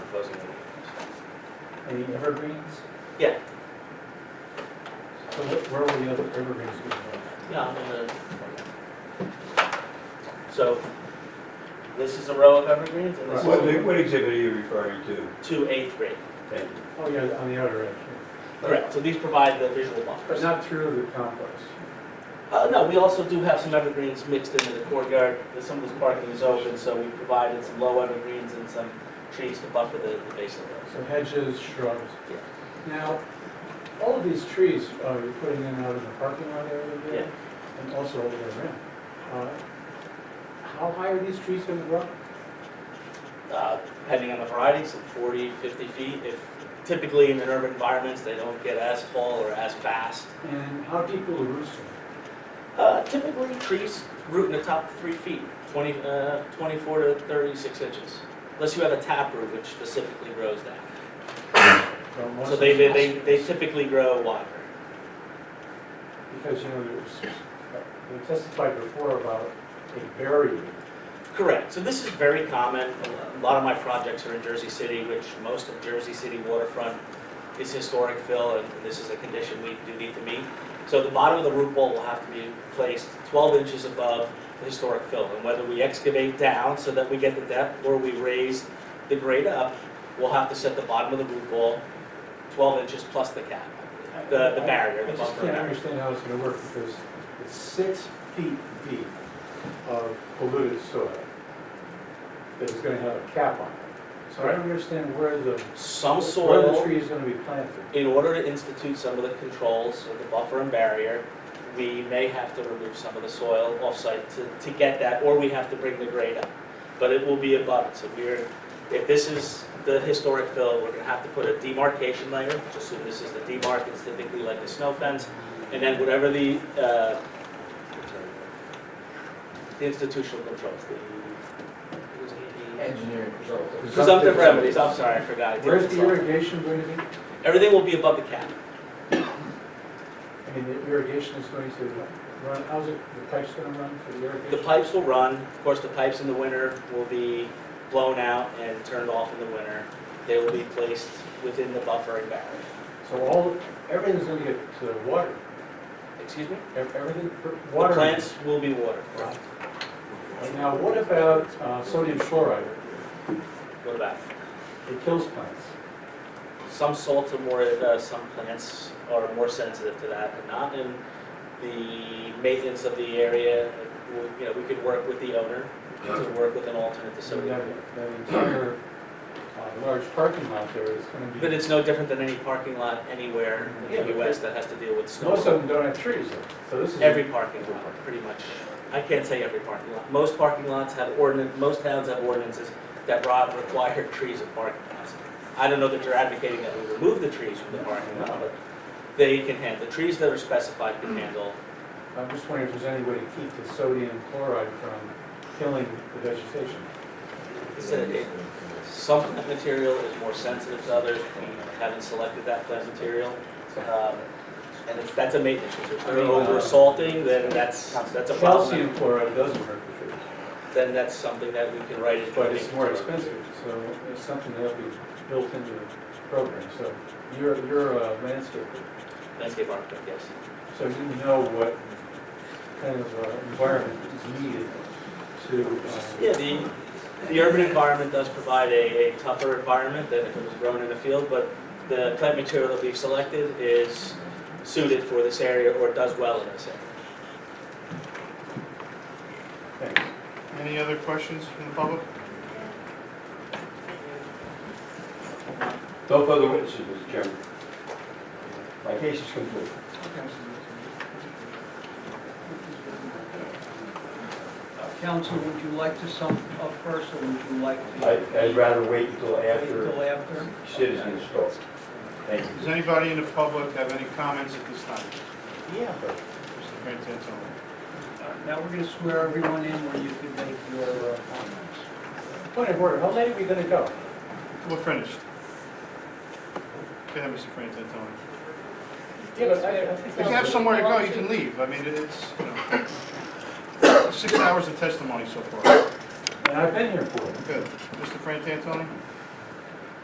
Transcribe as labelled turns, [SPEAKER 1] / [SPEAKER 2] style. [SPEAKER 1] the evergreens?
[SPEAKER 2] Yeah.
[SPEAKER 1] So wh- where will the other evergreens be?
[SPEAKER 2] Yeah, I'm gonna. So, this is a row of evergreens and this
[SPEAKER 3] What,
[SPEAKER 2] is
[SPEAKER 3] what exhibit are you referring to?
[SPEAKER 2] two eighth grade.
[SPEAKER 3] Ted?
[SPEAKER 1] Oh, yeah, on the outer edge. yeah.
[SPEAKER 2] Correct, so these provide the visual
[SPEAKER 1] But
[SPEAKER 2] buffers.
[SPEAKER 1] not through the complex.
[SPEAKER 2] Uh, no, we also do have some evergreens mixed into the courtyard, There's some of this parking is open, so we provided some low evergreens and some trees to buffer the, the base of those.
[SPEAKER 1] So hedges, shrubs. Now, all of these trees, uh, you're putting in out in the parking lot area
[SPEAKER 2] Yeah.
[SPEAKER 1] there? And also over there, around. Uh, How high are these trees going to grow?
[SPEAKER 2] Uh, depending on the variety, some 40, 50 feet. If typically in urban environments, they don't get as tall or as fast.
[SPEAKER 1] And how deep will the roots
[SPEAKER 2] Uh, typically, trees root in the top three feet, 20, uh, 24 to 36 inches, unless you have a tap root, which specifically grows that.
[SPEAKER 1] go? From one
[SPEAKER 2] So they, they,
[SPEAKER 1] side-
[SPEAKER 2] they they typically grow wider.
[SPEAKER 1] Because, you know, there's, we testified before about a barrier.
[SPEAKER 2] Correct. So this is very common. A lot of my projects are in Jersey City, which most of Jersey City waterfront is historic fill, and this is a condition we do need to meet. So the bottom of the root ball will have to be placed 12 inches above the historic fill. And whether we excavate down so that we get the depth, or we raise the grade up, we'll have to set the bottom of the root ball 12 inches plus the cap, the the barrier,
[SPEAKER 1] I
[SPEAKER 2] the
[SPEAKER 1] just
[SPEAKER 2] buffer
[SPEAKER 1] can't
[SPEAKER 2] barrier.
[SPEAKER 1] understand how it's gonna work because it's six feet deep of polluted soil that is gonna have a cap on it. So I don't understand where the,
[SPEAKER 2] Some
[SPEAKER 1] where the
[SPEAKER 2] soil
[SPEAKER 1] tree is gonna be planted.
[SPEAKER 2] In order to institute some of the controls, of the buffer and barrier, we may have to remove some of the soil off-site to, to get that, or we have to bring the grade up. But it will be above, so we're, if this is the historic fill, we're gonna have to put a demarcation layer, just assume this is the demarc, it's typically like a snow fence, and then whatever the, uh, the institutional controls, the,
[SPEAKER 4] engineering consultant.
[SPEAKER 2] presumptive remedies, I'm sorry, I forgot. I did
[SPEAKER 1] Where's
[SPEAKER 2] this
[SPEAKER 1] the
[SPEAKER 2] all.
[SPEAKER 1] irrigation going to be?
[SPEAKER 2] Everything will be above the cap.
[SPEAKER 1] I mean, the irrigation is going to run, how's it, the pipe's gonna run for the irrigation?
[SPEAKER 2] The pipes will run, of course, the pipes in the winter will be blown out and turned off in the winter. They will be placed within the buffer and barrier.
[SPEAKER 1] So all, everything's gonna get uh, water,
[SPEAKER 2] Excuse me?
[SPEAKER 1] Ev- everything, per-
[SPEAKER 2] The
[SPEAKER 1] water.
[SPEAKER 2] plants will be watered.
[SPEAKER 1] Now, what about uh, sodium chloride?
[SPEAKER 2] What about?
[SPEAKER 1] It kills plants.
[SPEAKER 2] Some salts are more, uh, some plants are more sensitive to that than not. And the maintenance of the area, uh, we- you know, we could work with the owner to work with an alternate to
[SPEAKER 1] So that,
[SPEAKER 2] sodium.
[SPEAKER 1] that entire uh, large parking lot there is gonna be.
[SPEAKER 2] But it's no different than any parking lot anywhere in the US that has to deal with snow.
[SPEAKER 1] Most of them don't have trees, though, so this is.
[SPEAKER 2] Every parking lot, pretty much. I can't say every parking lot. Most parking lots have ordinance, most towns have ordinances that ro- require trees in parking lots. I don't know that you're advocating that we remove the trees from the parking lot, but they can handle, the trees that are specified can handle.
[SPEAKER 1] I'm just wondering if there's any way to keep the sodium chloride from killing the vegetation.
[SPEAKER 2] It's a- it- Some plant material is more sensitive to others. We haven't selected that plant material. Um, And if that's a maintenance issue. If they're over salting, then that's, that's a problem.
[SPEAKER 1] Calcium chloride doesn't hurt the trees,
[SPEAKER 2] Then that's something that we can write in.
[SPEAKER 1] but it's more expensive, so it's something that'll be built into the program, so you're, you're a landscaper.
[SPEAKER 2] Landscape architect, yes.
[SPEAKER 1] So you know what kind of uh, environment is needed to, uh,
[SPEAKER 2] Yeah, the, the urban environment does provide a, a tougher environment than if it was grown in a field, but the plant material that we've selected is suited for this area or does well in this area.
[SPEAKER 1] uh, thanks.
[SPEAKER 5] Any other questions from the public?
[SPEAKER 3] No further witnesses, Mr. Chairman. My case is complete.
[SPEAKER 6] Counsel, would you like to sum up first, or would you like to?
[SPEAKER 3] I- I'd rather wait until
[SPEAKER 6] Wait
[SPEAKER 3] after
[SPEAKER 6] Until after?
[SPEAKER 3] citizens talk. Thank you.
[SPEAKER 5] Does anybody in the public have any comments at this time?
[SPEAKER 2] Yeah.
[SPEAKER 5] Mr. Frantantoni?
[SPEAKER 6] Now, we're going to swear everyone in where you can make your uh, comments.
[SPEAKER 1] Point of order, how late are we gonna go?
[SPEAKER 5] We're finished. Go ahead, Mr. Frantantoni.
[SPEAKER 1] Yeah, but I- I think
[SPEAKER 5] If you have somewhere to go, you can leave. I mean, it's, you know, six hours of testimony so far.
[SPEAKER 1] And I've been here for it.
[SPEAKER 5] Good. Mr. Frantantoni?